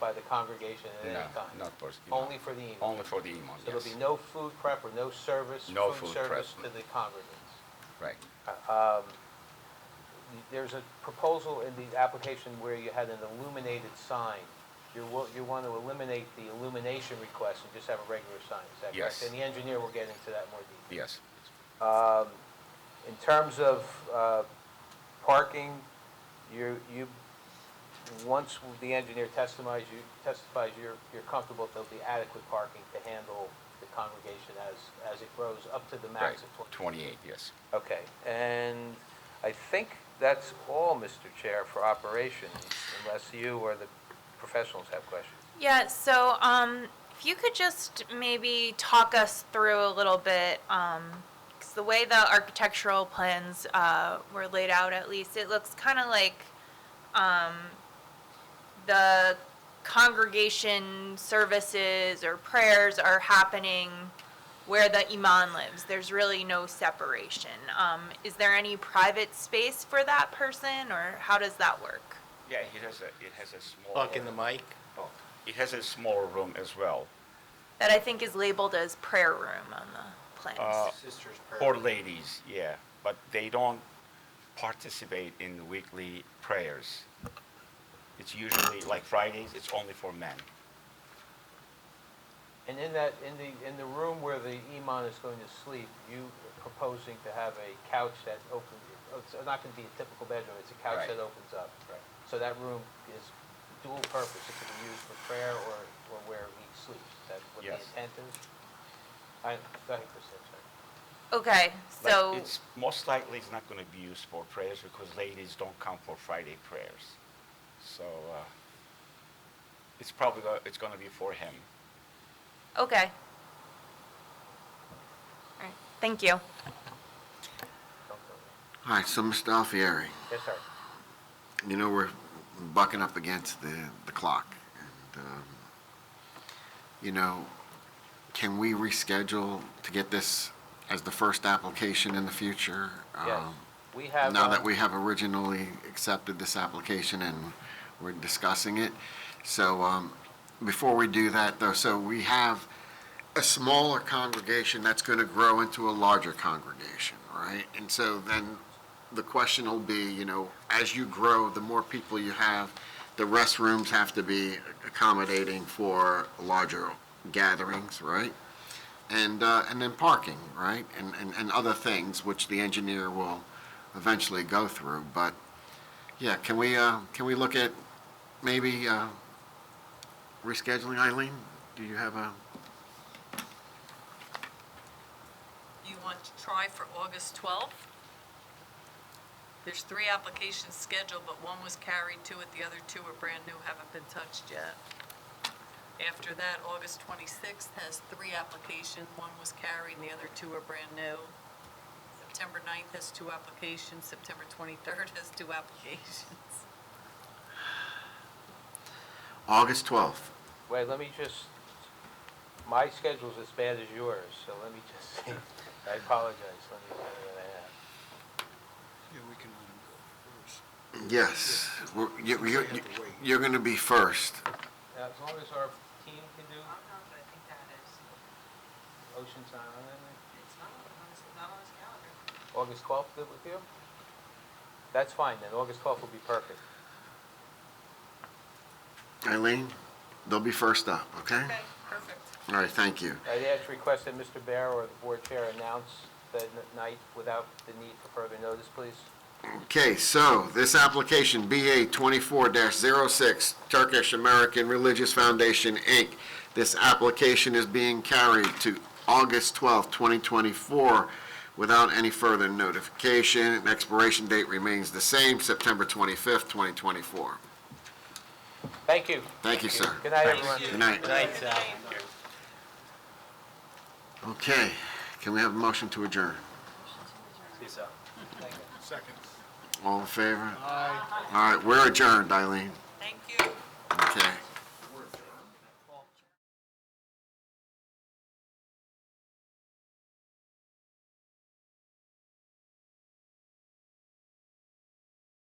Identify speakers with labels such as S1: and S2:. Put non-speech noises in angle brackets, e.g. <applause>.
S1: by the congregation at
S2: No,
S1: any time?
S2: not for imam.
S1: Only for the imam?
S2: Only for the imam,
S1: So there'll
S2: yes.
S1: be no food prep or no service?
S2: No food
S1: service to
S2: prep.
S1: the congregants?
S2: Right.
S1: There's a proposal in the application where you had an illuminated sign. You will, you want to eliminate the illumination request and just have a regular sign, is that correct?
S2: Yes.
S1: And the engineer will get into that more detail.
S2: Yes.
S1: In terms of uh, parking, you, you, once the engineer testifies, you, testifies you're, you're comfortable there'll be adequate parking to handle the congregation as, as it grows up to the
S2: Right.
S1: max of 20?
S2: 28, yes.
S1: Okay, and I think that's all, Mr. Chair, for operations, unless you or the professionals have questions.
S3: Yeah, so um, if you could just maybe talk us through a little bit, because the way the architectural plans uh, were laid out, at least, it looks kind of like um, the congregation services or prayers are happening where the imam lives. There's really no separation. Um, Is there any private space for that person, or how does that work?
S2: Yeah, it has a, it has a small.
S4: Talk in the mic.
S5: Oh,
S2: It has a small room as well
S3: That I think is labeled as prayer room on the plans.
S2: Uh,
S1: Sisters
S2: for ladies, yeah. But they don't participate in weekly prayers. It's usually, like Fridays, it's only for men.
S1: And in that, in the, in the room where the imam is going to sleep, you proposing to have a couch that opens, it's not going to be a typical bedroom, it's a couch
S2: Right.
S1: that opens up. So that room is dual purpose, it can be used for prayer or, or where he sleeps, Is that what the
S2: Yes.
S1: intent is? I, go ahead, Chris, I'm sorry.
S3: okay,
S2: But
S3: so
S2: It's, most likely it's not gonna be used for prayers because ladies don't come for Friday prayers. So, uh, it's probably, go- it's gonna be for him.
S3: okay. All right, thank you.
S1: Don't go there.
S6: All right, so Mr. Alfieri,
S1: Yes, sir.
S6: you know we're bucking up against the, the clock. And, um, you know, can we reschedule to get this as the first application in the future?
S1: Yes,
S6: Um,
S1: we have.
S6: Now
S1: um,
S6: that we have originally accepted this application and we're discussing it. So um, before we do that, though, so we have a smaller congregation that's going to grow into a larger congregation, right? And so then the question will be, you know, as you grow, the more people you have, the restrooms have to be accommodating for larger gatherings, right? and, uh, and then parking, right? And, and, and other things, which the engineer will eventually go through, but, yeah, can we, uh, can we look at maybe, uh, rescheduling, Eileen? Do you have a,
S7: You want to try for August 12th? There's three applications scheduled, but one was carried to it, the other two are brand new, haven't been touched yet. After that, August 26th has three applications, one was carried and the other two are brand new. September 9th has two applications, September 23rd has two applications. <laughs>
S6: August twelfth?
S1: Wait, let me just, my schedule's as bad as yours, so let me just see. I apologize, let me uh, tell you what I have.
S5: Yeah, we can let him go first.
S6: Yes, We're- you, you,
S5: We have to wait.
S6: you're gonna be first.
S1: Now, As long as our team can do,
S7: I think that is,
S1: Ocean's not on it,
S7: it's not on his calendar.
S1: August 12th, good with you? That's fine, then, August 12th will be perfect.
S6: Eileen, they'll be first up, okay?
S7: Okay, perfect.
S6: All right, thank you.
S1: I'd ask request that Mr. Bear or the board chair announce the n- night without the need for further notice, please.
S6: Okay, so this application, BA 24-06, Turkish American Religious Foundation, Inc. This application is being carried to August 12, 2024, without any further notification. Expiration date remains the same, September 25, 2024.
S1: Thank you.
S6: Thank you, sir.
S1: Good night, everyone.
S6: Good night.
S4: Night, Sal.
S6: Okay, can we have a motion to adjourn?
S4: Second.
S6: All in favor? All right, we're adjourned, Eileen.